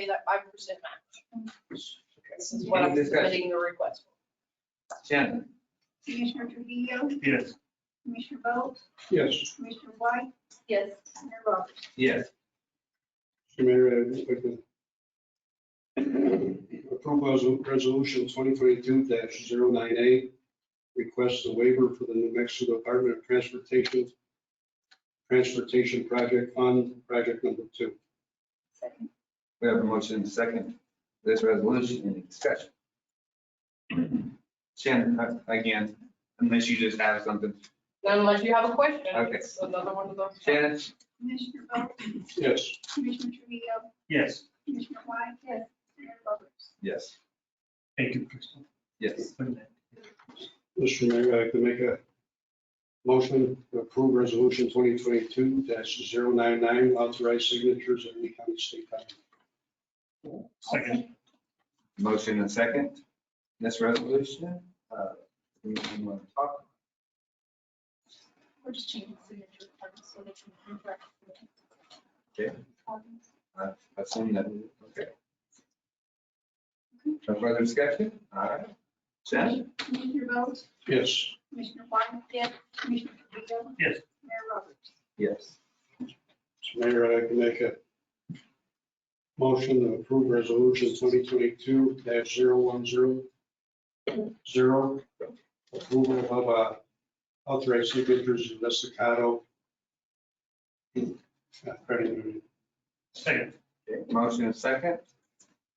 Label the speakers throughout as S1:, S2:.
S1: pay that five percent match. This is what
S2: Any
S1: I'm
S2: discussion?
S1: submitting the request.
S2: Shannon?
S3: Commissioner Trujillo,
S4: Yes.
S3: Commissioner Bolt,
S5: Yes,
S3: Commissioner White,
S1: Yes.
S3: Mayor Roberts.
S2: Yes.
S5: Mr. Mayor, I just like to approve resol- resolution twenty twenty-two 98 requests a waiver for the New Mexico Department of Transportation, Transportation Project Fund, project number two.
S3: Second.
S2: We have a motion and a second for this resolution. Any discussion? Shannon, uh, again, unless you just have something.
S1: Unless you have a question,
S2: Okay.
S1: it's another one of those.
S2: Shannon?
S3: Commissioner Bolt,
S5: Yes,
S3: Commissioner Trujillo,
S4: Yes.
S3: Commissioner White. Yes. Mayor Roberts.
S2: Yes.
S4: Thank you, Crystal.
S2: Yes.
S5: Mr. Mayor, I'd like to make a motion to approve resolution twenty twenty-two 99 authorize signatures of Lee County State Highway.
S4: Second.
S2: Motion and second. This resolution, uh, we we want to talk.
S6: We're just changing the signature requirements so they can interact with
S2: Okay. I assume that, okay. No further discussion? All right. Shannon?
S3: Commissioner Bolt,
S5: Yes.
S3: Commissioner White. Yes. Commissioner Trujillo.
S4: Yes.
S3: Mayor Roberts.
S2: Yes.
S5: Mr. Mayor, I can make a motion to approve resolution twenty twenty-two 10 zero one zero zero. Approval of uh, authorized signatures of Estacado. uh, Credit Union.
S4: Second.
S2: Okay, Motion and second.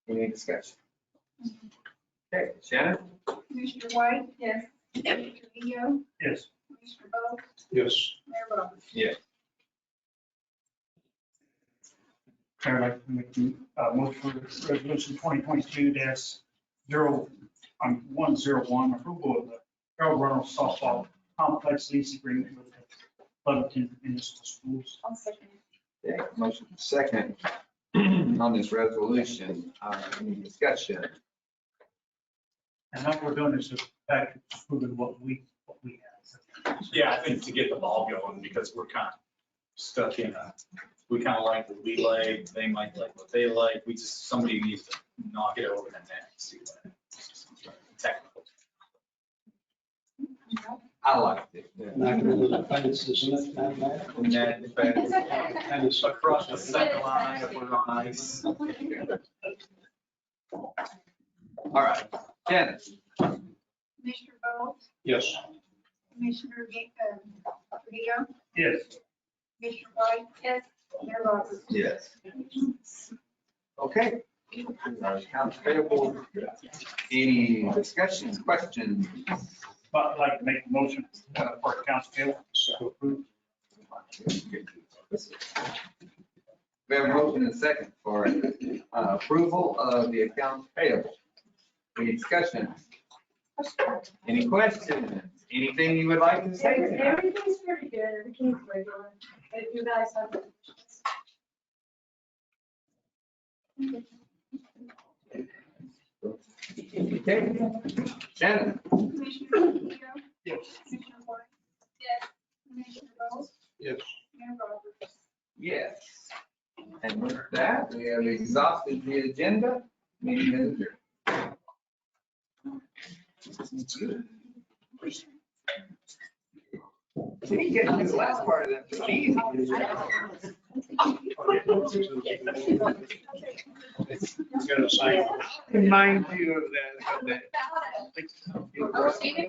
S2: Any discussion? Okay, Shannon?
S3: Commissioner White. Yes. Commissioner Trujillo,
S4: Yes.
S3: Commissioner Bolt,
S5: Yes,
S3: Mayor Roberts.
S2: Yes.
S4: Chair, I'd like to make the uh, motion for resolution twenty twenty-two dash zero, um, one zero one, approval of the Harold Reynolds softball complex lease agreement with the Lebanon Municipal Schools.
S6: I'll second.
S2: Okay, motion and second on this resolution. Uh, Any discussion?
S4: And all we're doing is just back to proving what we, what we have.
S7: Yeah, I think to get the ball going, because we're kind of stuck in a, we kind of like what we like, they might like what they like, we just, somebody needs to knock it over the net. see what- Technical.
S2: I liked it.
S5: not gonna do the finance, isn't it? Not that.
S2: Net effect.
S5: Kind of suck.
S7: Across the second line, if we're on ice.
S2: All right, Shannon?
S3: Commissioner Bolt,
S5: Yes.
S3: Commissioner uh, Trujillo,
S4: Yes.
S3: Commissioner White. Yes. Mayor Roberts.
S2: Yes. Okay. Accounts payable. Any discussions, questions?
S4: But I'd like to make a motion uh, for accounts payable.
S2: We have a motion and a second for uh, approval of the accounts payable. Any discussion? Any questions? Anything you would like to say? tonight?
S6: Everything's pretty good, everything's regular. If you guys have.
S2: Okay. Shannon?
S3: Commissioner Trujillo,
S4: Yes.
S3: Commissioner White.
S6: Yes.
S3: Commissioner Bolt,
S5: Yes.
S3: Mayor Roberts.
S2: Yes. And with that, we have exhausted the agenda. Meeting is adjourned. Did he get his last part of that? It's easy.
S5: You gotta sign.
S2: Remind you of that.
S6: Receiving.